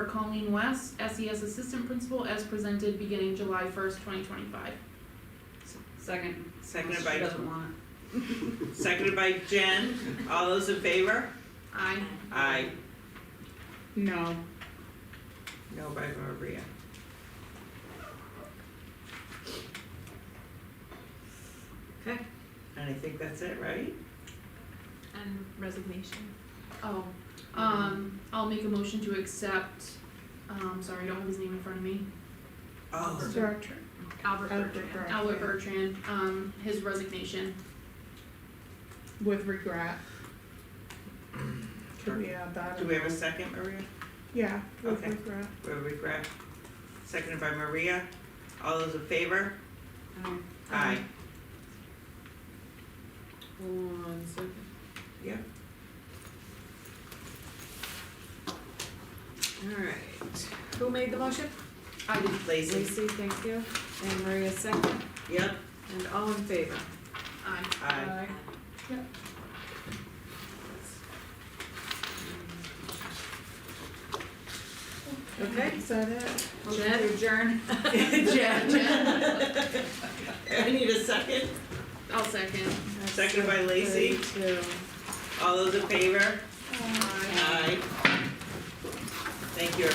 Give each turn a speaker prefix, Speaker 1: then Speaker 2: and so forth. Speaker 1: for Colleen West, SES Assistant Principal, as presented beginning July first, twenty twenty-five.
Speaker 2: Second.
Speaker 3: Seconded
Speaker 2: She
Speaker 3: by,
Speaker 2: doesn't want
Speaker 3: seconded by Jen. All those in favor?
Speaker 1: Aye.
Speaker 3: Aye.
Speaker 4: No.
Speaker 3: No by Maria. Okay, and I think that's it, right?
Speaker 5: and resignation.
Speaker 1: Oh, um, I'll make a motion to accept, um, sorry, I don't have his name in front of me,
Speaker 3: Oh,
Speaker 4: Director.
Speaker 5: Albert
Speaker 4: Albert
Speaker 5: Bertrand.
Speaker 4: Bertrand.
Speaker 1: Albert Bertrand, um, his resignation.
Speaker 4: With regret. Could we add that?
Speaker 3: do we have a second, Maria?
Speaker 4: Yeah, with
Speaker 3: Okay.
Speaker 4: regret.
Speaker 3: We have regret. Seconded by Maria. All those in favor?
Speaker 2: Aye.
Speaker 3: Aye.
Speaker 2: One second.
Speaker 3: Yeah.
Speaker 2: Alright, who made the motion?
Speaker 1: I did
Speaker 3: Lacy?
Speaker 2: Lacey, thank you, and Maria second,
Speaker 3: Yep,
Speaker 2: and all in favor?
Speaker 1: aye.
Speaker 3: aye.
Speaker 1: Yep.
Speaker 2: Okay,
Speaker 4: Is that it?
Speaker 2: motion to adjourn.
Speaker 3: Jen. I need a second.
Speaker 1: I'll second.
Speaker 3: Seconded by Lacey.
Speaker 2: Three, two.
Speaker 3: All those in favor?
Speaker 1: Aye.
Speaker 3: Aye. Thank you,